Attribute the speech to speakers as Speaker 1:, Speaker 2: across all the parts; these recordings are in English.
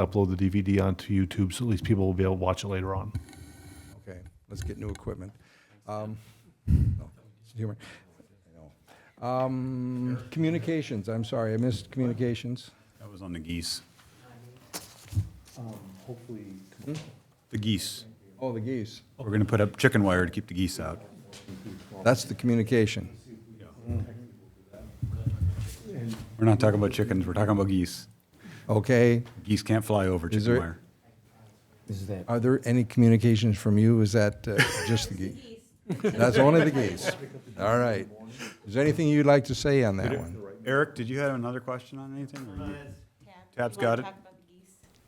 Speaker 1: upload the DVD onto YouTube, so at least people will be able to watch it later on.
Speaker 2: Okay, let's get new equipment. Um, no, it's humor. I know. Um, Communications, I'm sorry, I missed communications.
Speaker 3: That was on the geese.
Speaker 1: Hopefully.
Speaker 3: The geese.
Speaker 2: Oh, the geese.
Speaker 3: We're going to put up chicken wire to keep the geese out.
Speaker 2: That's the communication.
Speaker 3: We're not talking about chickens, we're talking about geese.
Speaker 2: Okay,
Speaker 3: Geese can't fly over
Speaker 2: Is
Speaker 3: chicken
Speaker 2: there-
Speaker 3: wire.
Speaker 4: Is that
Speaker 2: are there any communications from you? Is that uh, just the geese? That's only the geese. All right. Is there anything you'd like to say on that one?
Speaker 3: Eric, did you have another question on anything?
Speaker 1: Uh,
Speaker 3: or you- Tab's got it.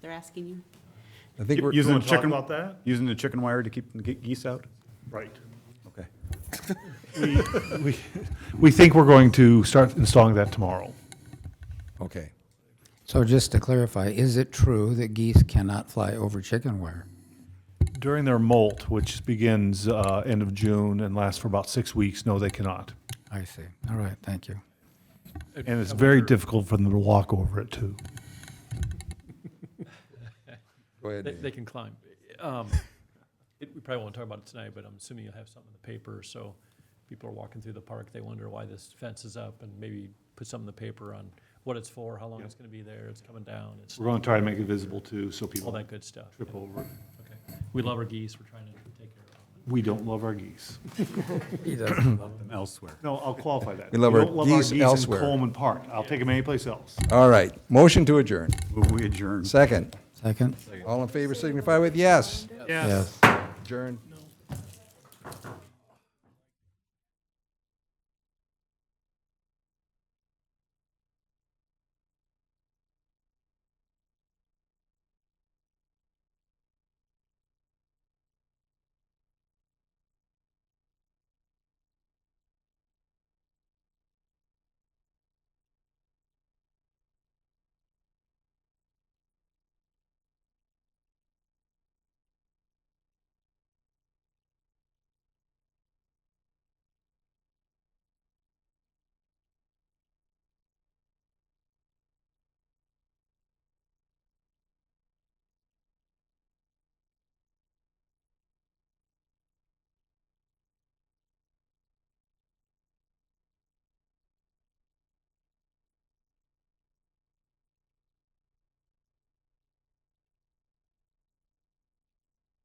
Speaker 5: They're asking you.
Speaker 2: I think we're,
Speaker 3: Using the
Speaker 1: wanna talk
Speaker 3: chicken-
Speaker 1: about that?
Speaker 3: Using the chicken wire to keep the ge- geese out?
Speaker 1: Right.
Speaker 3: Okay.
Speaker 1: We, we think we're going to start installing that tomorrow.
Speaker 2: okay.
Speaker 4: so? Just to clarify, is it true that geese cannot fly over chicken wire?
Speaker 1: During their molt, which begins uh, end of June and lasts for about six weeks, no, they cannot.
Speaker 4: I see. All right, thank you.
Speaker 1: And it's very difficult for them to walk over it, too.
Speaker 2: Go ahead.
Speaker 6: They,
Speaker 2: Dave.
Speaker 6: they can climb. Um, it, we probably won't talk about it tonight, but I'm assuming you'll have something in the paper, so people are walking through the park, they wonder why this fence is up, and maybe put something in the paper on what it's for, how long it's gonna be there, it's coming down, it's
Speaker 1: We're going to try to make it visible, too, so
Speaker 6: all
Speaker 1: people
Speaker 6: that good stuff.
Speaker 1: trip
Speaker 6: Yeah,
Speaker 1: over. it.
Speaker 6: Okay. We love our geese, we're trying to take care of them.
Speaker 1: We don't love our geese.
Speaker 4: He doesn't.
Speaker 3: Them elsewhere.
Speaker 1: No, I'll qualify that.
Speaker 2: We love our
Speaker 1: don't
Speaker 2: geese elsewhere.
Speaker 1: in Coleman Park. I'll take them anyplace else.
Speaker 2: All right, motion to adjourn.
Speaker 3: We adjourn.
Speaker 2: Second.
Speaker 4: Second.
Speaker 2: All in favor signify with yes.
Speaker 4: Yes.
Speaker 2: Adjourn.